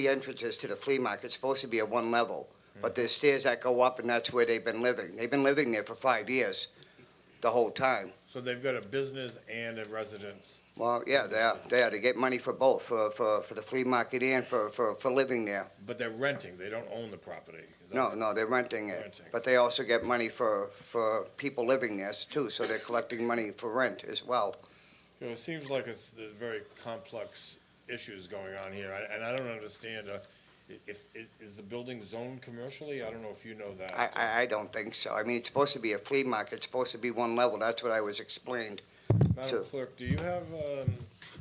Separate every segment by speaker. Speaker 1: The entrances to the flea market's supposed to be at one level, but there's stairs that go up, and that's where they've been living. They've been living there for five years, the whole time.
Speaker 2: So they've got a business and a residence.
Speaker 1: Well, yeah, they are, they are. They get money for both, for, for, for the flea market and for, for, for living there.
Speaker 2: But they're renting, they don't own the property. Is that-
Speaker 1: No, no, they're renting it,
Speaker 2: Renting.
Speaker 1: but they also get money for, for people living there too, so they're collecting money for rent as well.
Speaker 2: You know, it seems like it's, there's very complex issues going on here, I- and I don't understand, uh, i- if, i- is the building zoned commercially? I don't know if you know that.
Speaker 1: I, I, I don't think so. I mean, it's supposed to be a flea market, it's supposed to be one level, that's what I was explained.
Speaker 2: Madam
Speaker 1: so-
Speaker 2: Clerk, do you have, um,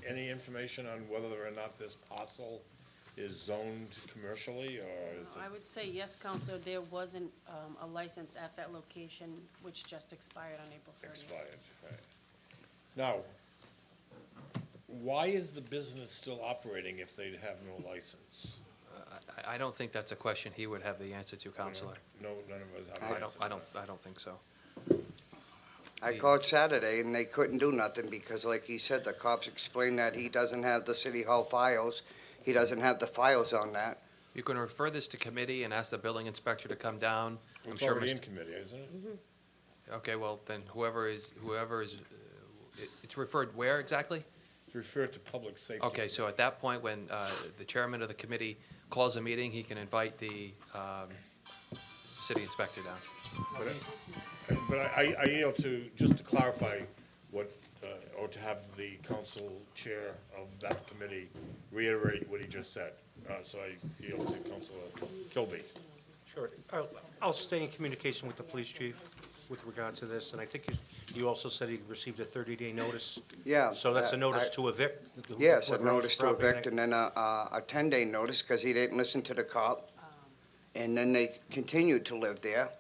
Speaker 2: any information on whether or not this parcel is zoned commercially, or is
Speaker 3: I
Speaker 2: it?
Speaker 3: would say yes, Counselor, there wasn't um, a license at that location, which just expired on April 30th.
Speaker 2: Expired, right. Now, why is the business still operating if they have no license?
Speaker 4: I I don't think that's a question he would have the answer to, Counselor.
Speaker 2: No, none of us have.
Speaker 4: I don't,
Speaker 2: license.
Speaker 4: I don't, I don't think so.
Speaker 1: I
Speaker 4: Yeah.
Speaker 1: called Saturday and they couldn't do nothing because like he said, the cops explained that he doesn't have the city hall files. He doesn't have the files on that.
Speaker 4: You can refer this to committee and ask the building inspector to come down. I'm
Speaker 2: It's
Speaker 4: sure,
Speaker 2: already in
Speaker 4: Mr.
Speaker 2: committee, isn't it?
Speaker 4: okay, well, then whoever is, whoever is, uh, it- it's referred where exactly?
Speaker 2: It's referred to public safety.
Speaker 4: Okay, so at that point, when uh, the chairman of the committee calls a meeting, he can invite the um, city inspector down.
Speaker 2: But I- but I, I yield to, just to clarify what, uh, or to have the council chair of that committee reiterate what he just said. Uh, So I yield to Councilor Kilby.
Speaker 5: Sure. I'll- I'll stay in communication with the police chief with regard to this, and I think you- you also said you received a 30-day notice.
Speaker 1: Yeah,
Speaker 5: So that's
Speaker 1: that-
Speaker 5: a notice
Speaker 1: I-
Speaker 5: to evict. who-
Speaker 1: Yes, a
Speaker 5: whoever owns
Speaker 1: notice to
Speaker 5: property.
Speaker 1: evict and then a, a a ten-day notice because he didn't listen to the cop.
Speaker 5: Um.
Speaker 1: And then they continued to live there.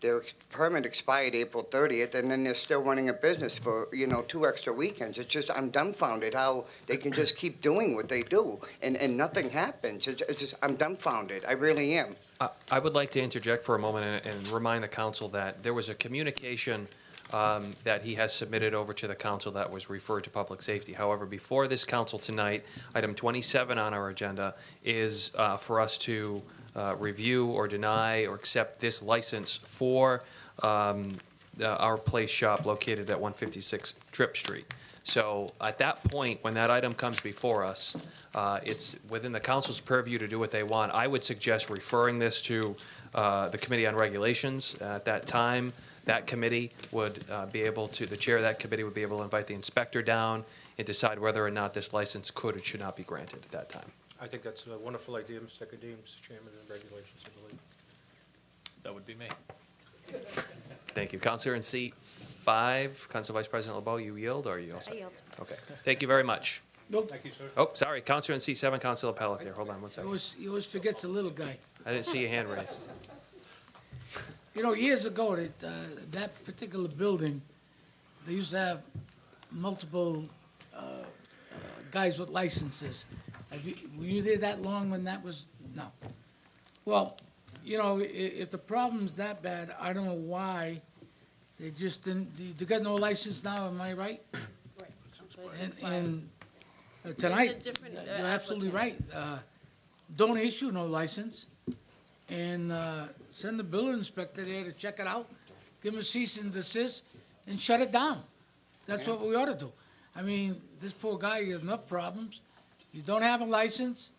Speaker 1: Their permit expired April thirtieth and then they're still running a business for, you know, two extra weekends. It's just, I'm dumbfounded how they can just keep doing what they do and, and nothing happens. It's it's just, I'm dumbfounded. I really am.
Speaker 4: I- I would like to interject for a moment and- and remind the council that there was a communication um, that he has submitted over to the council that was referred to public safety. However, before this council tonight, item 27 on our agenda is uh, for us to uh, review or deny or accept this license for um, uh, our place shop located at 156 Trip Street. So at that point, when that item comes before us, uh, it's within the council's purview to do what they want. I would suggest referring this to uh, the Committee on Regulations. At that time, that committee would uh, be able to, the chair of that committee would be able to invite the inspector down and decide whether or not this license could or should not be granted at that time.
Speaker 5: I think that's a wonderful idea, Mr. Kadim, Mr. Chairman, and regulations, I believe.
Speaker 4: That would be me. Thank you. Counselor in seat five, Council Vice President LeBeau, you yield or are you also?
Speaker 6: yield.
Speaker 4: Okay. Thank you very much.
Speaker 5: Thank you, sir.
Speaker 4: Oh, sorry, Counselor in seat seven, Counselor Pelletier. Hold on one
Speaker 7: You
Speaker 4: second.
Speaker 7: always, you always forget the little guy.
Speaker 4: I didn't see your hand raised.
Speaker 7: You know, years ago, that, uh, that particular building, they used to have multiple, uh, uh, guys with licenses. Have you, were you there that long when that was, no? Well, you know, i- if the problem's that bad, I don't know why they just didn't, they- they got no license now, am I right?
Speaker 3: Right, Counselor, it's
Speaker 7: And,
Speaker 3: expired.
Speaker 7: and uh, tonight,
Speaker 3: different, uh,
Speaker 7: you're absolutely right. Uh, Don't issue no license and uh, send the building inspector there to check it out, give him a cease and desist and shut it down. That's what we ought to do. I mean, this poor guy, he has enough problems. You don't have a license,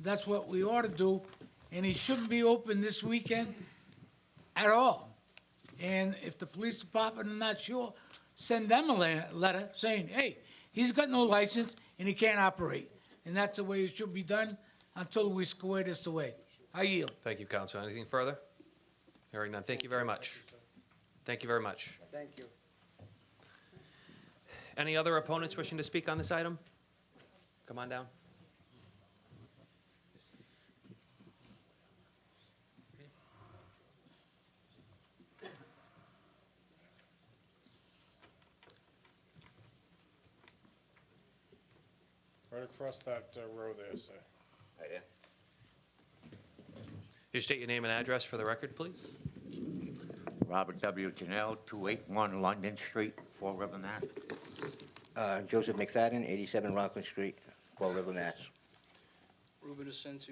Speaker 7: that's what we ought to do. And he shouldn't be open this weekend at all. And if the police department are not sure, send them a le- letter saying, hey, he's got no license and he can't operate. And that's the way it should be done until we square this away. I yield.
Speaker 4: Thank you, Counselor. Anything further? Hearing none. Thank you very much. Thank you very much.
Speaker 1: Thank you.
Speaker 4: Any other opponents wishing to speak on this item? Come on down.
Speaker 2: Right across that uh, row there, sir.
Speaker 4: You state your name and address for the record, please.
Speaker 8: Robert W. Janelle, 281 London Street, Fall River, Mass.
Speaker 9: Uh, Joseph McFadden, 87 Rockland Street, Fall River, Mass.
Speaker 10: Ruben Asensio